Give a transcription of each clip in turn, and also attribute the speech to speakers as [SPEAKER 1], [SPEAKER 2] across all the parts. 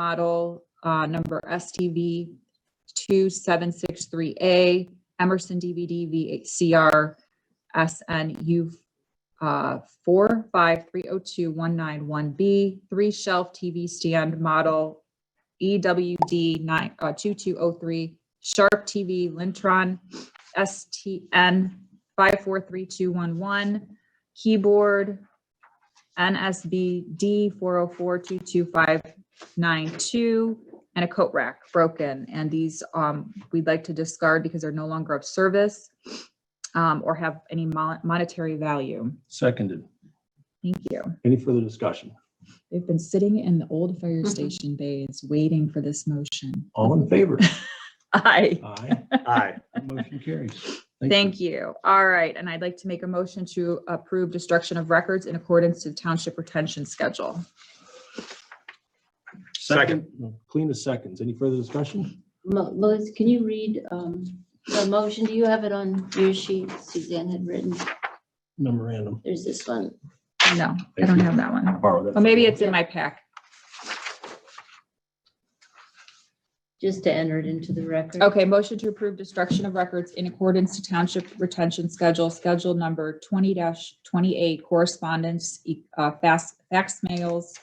[SPEAKER 1] model, uh, number STV 2763A, Emerson DVD VCR SNU uh, 4530219B, three shelf TV stand model E EWD 9, uh, 2203, Sharp TV Lintron STN 543211, keyboard NSBD 404225592, and a coat rack broken. And these, um, we'd like to discard because they're no longer of service, um, or have any mon- monetary value.
[SPEAKER 2] Seconded.
[SPEAKER 1] Thank you.
[SPEAKER 2] Any further discussion?
[SPEAKER 1] They've been sitting in the old fire
[SPEAKER 3] Mhm.
[SPEAKER 1] station bays waiting for this motion.
[SPEAKER 2] All in favor?
[SPEAKER 1] Aye.
[SPEAKER 2] Aye.
[SPEAKER 4] Aye.
[SPEAKER 2] Motion carries.
[SPEAKER 1] Thank you. All right, and I'd like to make a motion to approve destruction of records in accordance to the township retention schedule.
[SPEAKER 2] Second. Clean as seconds. Any further discussion?
[SPEAKER 3] Mo- Lois, can you read um, the motion? Do you have it on your sheet Suzanne had written?
[SPEAKER 2] Memorandum.
[SPEAKER 3] There's this one.
[SPEAKER 1] No, I don't have that one.
[SPEAKER 2] Borrow that.
[SPEAKER 1] Well, maybe it's in my pack.
[SPEAKER 3] Just to enter it into the record.
[SPEAKER 1] Okay, motion to approve destruction of records in accordance to township retention schedule, schedule number twenty twenty-eight correspondence, e- uh, fast, fax mails,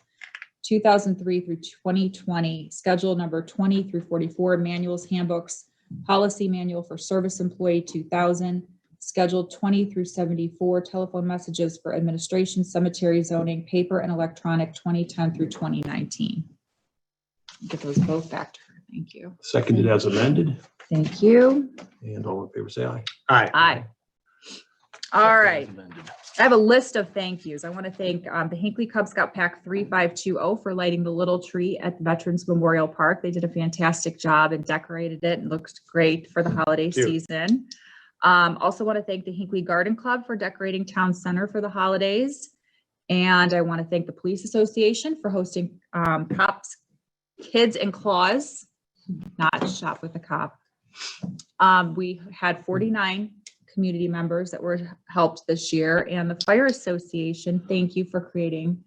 [SPEAKER 1] two thousand three through twenty twenty, schedule number twenty through forty-four, manuals, handbooks, policy manual for service employee two thousand, schedule twenty through seventy-four, telephone messages for administration, cemetery zoning, paper and electronic, twenty ten through twenty nineteen. Get those both back to her. Thank you.
[SPEAKER 2] Seconded as amended.
[SPEAKER 1] Thank you.
[SPEAKER 2] And all in favor, say aye.
[SPEAKER 4] Aye.
[SPEAKER 1] Aye. All right.
[SPEAKER 2] Seconded as amended.
[SPEAKER 1] I have a list of thank yous. I want to thank um, the Hinkley Cub Scout Pack 3520 for lighting the little tree at the Veterans Memorial Park. They did a fantastic job and decorated it and looks great for the holiday
[SPEAKER 4] Cute.
[SPEAKER 1] season. Um, Also want to thank the Hinkley Garden Club for decorating Town Center for the holidays. And I want to thank the Police Association for hosting um, cops, kids and claws, not shop with a cop. Um, We had 49 community members that were helped this year and the fire association thank you for creating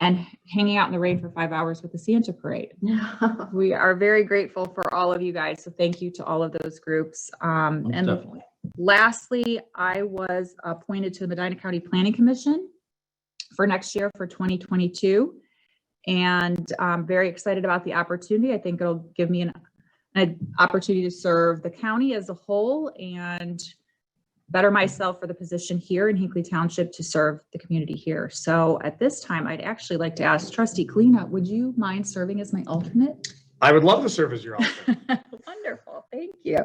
[SPEAKER 1] and hanging out in the rain for five hours with the santa parade we are very grateful for all of you guys so thank you to all of those groups um,
[SPEAKER 2] Most
[SPEAKER 1] and
[SPEAKER 2] Definitely.
[SPEAKER 1] Lastly, I was appointed to the Medina County Planning Commission for next year for 2022. And I'm very excited about the opportunity. I think it'll give me an, an opportunity to serve the county as a whole and better myself for the position here in Hinkley Township to serve the community here. So at this time, I'd actually like to ask trustee Kalina, would you mind serving as my alternate?
[SPEAKER 4] I would love to serve as your alternate.
[SPEAKER 1] Wonderful, thank you.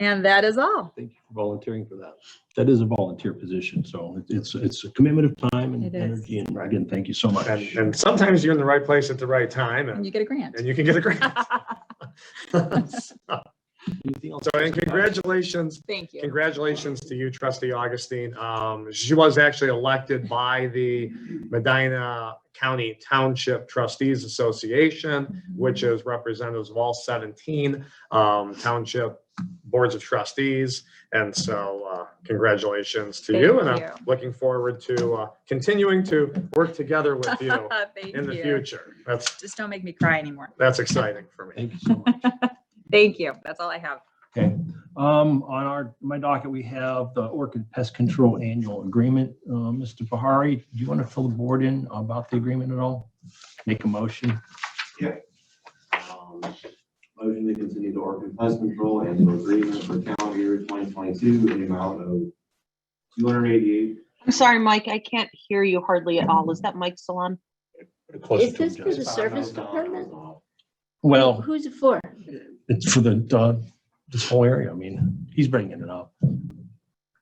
[SPEAKER 1] And that is all.
[SPEAKER 2] Thank you for volunteering for that. That is a volunteer position, so it- it's, it's a commitment of time and
[SPEAKER 1] It is.
[SPEAKER 2] energy. And again, thank you so much.
[SPEAKER 4] And, and sometimes you're in the right place at the right time
[SPEAKER 1] And you
[SPEAKER 4] and,
[SPEAKER 1] get a grant.
[SPEAKER 4] and you can get a grant. So,
[SPEAKER 2] Anything else?
[SPEAKER 4] and congratulations,
[SPEAKER 1] Thank you.
[SPEAKER 4] congratulations to you, trustee Augustine. Um, she was actually elected by the Medina County Township Trustees Association. which is representatives of all 17 um, township boards of trustees. And so uh, congratulations to you.
[SPEAKER 1] Thank
[SPEAKER 4] And
[SPEAKER 1] you.
[SPEAKER 4] I'm looking forward to uh, continuing to work together with you
[SPEAKER 1] Thank
[SPEAKER 4] in the
[SPEAKER 1] you.
[SPEAKER 4] future. That's,
[SPEAKER 1] Just don't make me cry anymore.
[SPEAKER 4] that's exciting for me.
[SPEAKER 2] Thank you so much.
[SPEAKER 1] Thank you. That's all I have.
[SPEAKER 2] Okay, um, on our, my docket, we have the Orchid Pest Control Annual Agreement. Uh, Mr. Bahari, do you want to fill the board in about the agreement at all? Make a motion.
[SPEAKER 5] Um, Motion to continue the Oregon Pest Control annual agreement for calendar year 2022 in the amount of 288.
[SPEAKER 6] I'm sorry, Mike, I can't hear you hardly at all. Is that Mike still on?
[SPEAKER 3] Is this for the service
[SPEAKER 5] $5,000.
[SPEAKER 3] department?
[SPEAKER 2] Well,
[SPEAKER 3] Who's it for?
[SPEAKER 2] it's for the, uh, this whole area. I mean, he's bringing it up.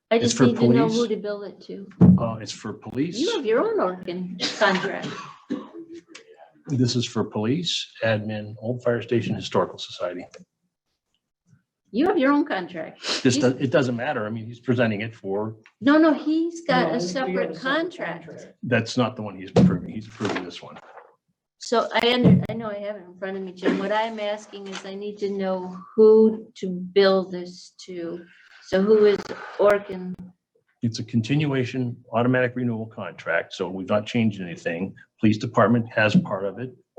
[SPEAKER 3] I
[SPEAKER 2] It's
[SPEAKER 3] just
[SPEAKER 2] for
[SPEAKER 3] need to know
[SPEAKER 2] police.
[SPEAKER 3] who to bill it to.
[SPEAKER 2] Uh, it's for police.
[SPEAKER 3] You have your own organ contract.
[SPEAKER 2] This is for police, admin, Old Fire Station Historical Society.
[SPEAKER 3] You have your own contract.
[SPEAKER 2] This, does- it doesn't matter. I mean, he's presenting it for,
[SPEAKER 3] No, no, he's got
[SPEAKER 5] No,
[SPEAKER 3] a
[SPEAKER 5] we- we have
[SPEAKER 3] separate
[SPEAKER 5] contract.
[SPEAKER 3] contract.
[SPEAKER 2] that's not the one he's approving. He's approving this one.
[SPEAKER 3] So I under, I know I have it in front of me, Jim. What I'm asking is I need to know who to bill this to. So who is Orkin?
[SPEAKER 2] It's a continuation automatic renewal contract, so we've not changed anything. Police Department has part of it.